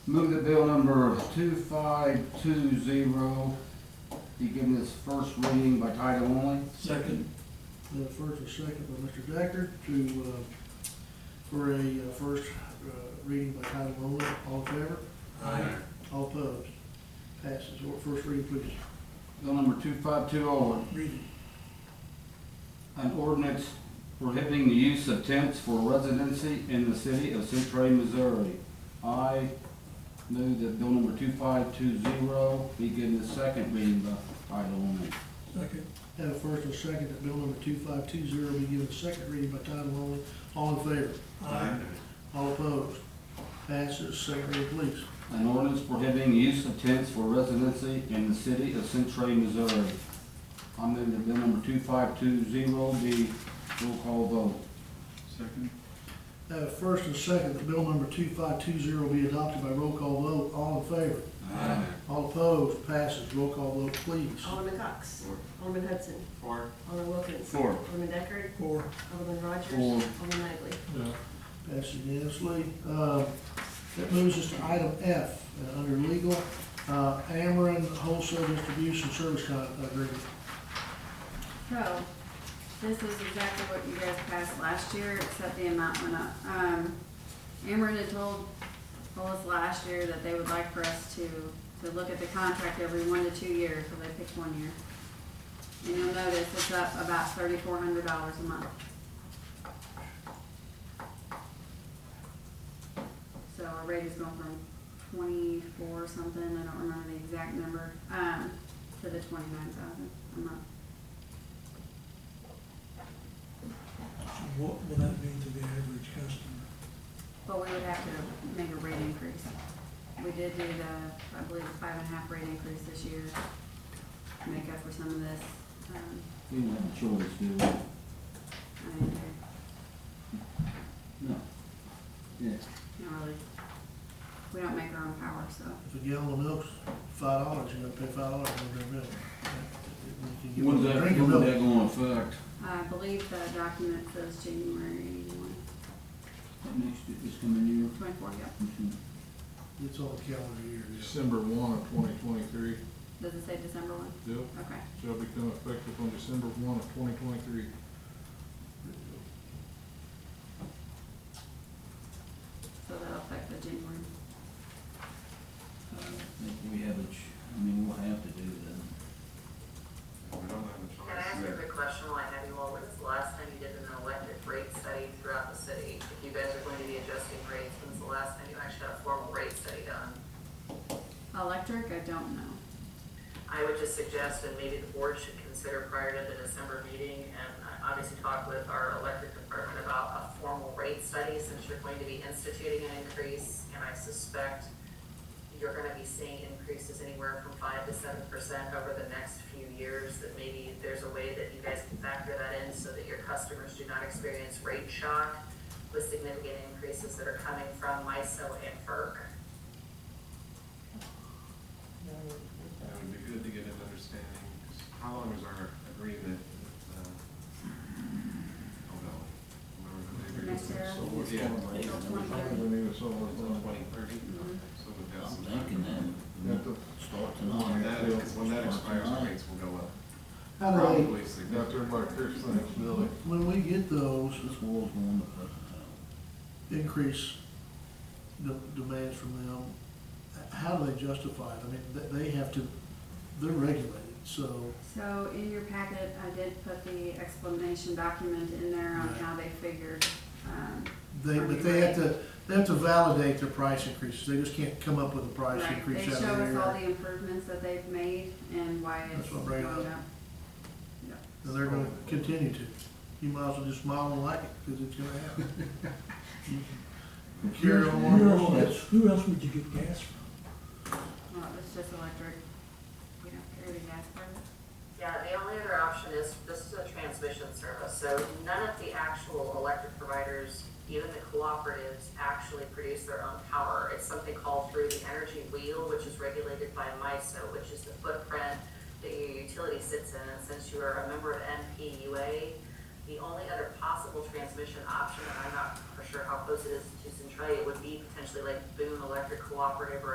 Move that bill number two five two zero be given its first reading by title only. Second. The first and second by Mr. Decker to, uh, for a uh, first uh, reading by title only. All in favor? Aye. All opposed? Passes. Or- First reading, please. Bill number two five two oh, Read it. an ordinance prohibiting the use of tents for residency in the city of Centray, Missouri. I move that bill number two five two zero be given its second reading by title only. Second. Have a first and second that bill number two five two zero be given second reading by title only. All in favor? Aye. All opposed? Passes. Second reading, please. An ordinance prohibiting the use of tents for residency in the city of Centray, Missouri. I move that bill number two five two zero be roll call vote. Second. Have a first and second that bill number two five two zero be adopted by roll call vote. All in favor? Aye. All opposed? Passes. Roll call vote, please. Alderman Cox. Alderman Hudson. Four. Alderman Wilkins. Four. Alderman Deckard. Four. Alderman Rogers. Four. Alderman Magley. No. Passed unanimously. Uh, That moves us to item F, uh, under legal, uh, Ameren Wholesale Distribution Service Con- uh, Agreement. So, this is exactly what you guys passed last year, except the amount went up. Um, Ameren had told us last year that they would like for us to, to look at the contract every one to two years, so they picked one year. And you'll notice it's up about thirty-four hundred dollars a month. So our rate is going from twenty-four something, I don't remember the exact number, um, to the twenty-nine thousand a month. What will that mean to the average customer? But we would have to make a rate increase. We did do the, I believe, five and a half rate increase this year to make up for some of this. um, We don't have a choice, do we? I mean, they're No. Yeah. not really, we don't make our own power, so. If a gallon of milk's five dollars, you're gonna pay five dollars on their bill. You can get When's a that, drink of when's milk. that gonna affect? I believe the document says January That next, this coming year? twenty-four, yeah. It's on the calendar year. yeah. December one of twenty twenty-three, Does it say December one? yep, Okay. shall become effective on December one of twenty twenty-three. So that'll affect the January. I don't think we have a ch- I mean, we'll have to do that. Can I ask you a quick question while I have you all? When's the last time you did an electric rate study throughout the city? If you guys are going to be adjusting rates, when's the last time you actually had a formal rate study done? Electric, I don't know. I would just suggest that maybe the board should consider prior to the December meeting and uh, obviously talk with our electric department about a formal rate study since you're going to be instituting an increase. And I suspect you're gonna be seeing increases anywhere from five to seven percent over the next few years. That maybe there's a way that you guys can factor that in so that your customers do not experience rate shock with significant increases that are coming from MISO and FERC. It would be good to get an understanding, 'cause how long is our agreement with, uh, oh no, remember the neighbor? Next year. So what's Yeah. going on? April 23rd. We need to solve It's on that. twenty thirty, Mm-hmm. so we've got I'm some thinking time. that, Got the, start When tonight. that, when that expires, our rates will go up, How do probably they got there significantly. by Chris Thanks, Billy. they, when we get those, This world's going to present increase the demands from them, how do they justify it? I mean, they, they have to, they're regulated, so So in your packet, I did put the explanation document in there on how they figured, um, they, but they have to, they have to validate their price increases. They just can't come up with a price Right, they increase out of show us all their air. the improvements that they've made and why it's That's what I'm going bringing up. up. Yeah. And they're gonna continue to. You might as well just smile and like it, because it's gonna happen. Carry Who else- on. Who else would you get gas from? Well, it's just electric, we don't carry the gas part. Yeah, the only other option is, this is a transmission service, so none of the actual electric providers, even the cooperatives, actually produce their own power. It's something called through the energy wheel, which is regulated by MISO, which is the footprint that your utility sits in. And since you are a member of NPUA, The only other possible transmission option, and I'm not for sure how close it is to Centralia, would be potentially like Boone Electric Cooperative or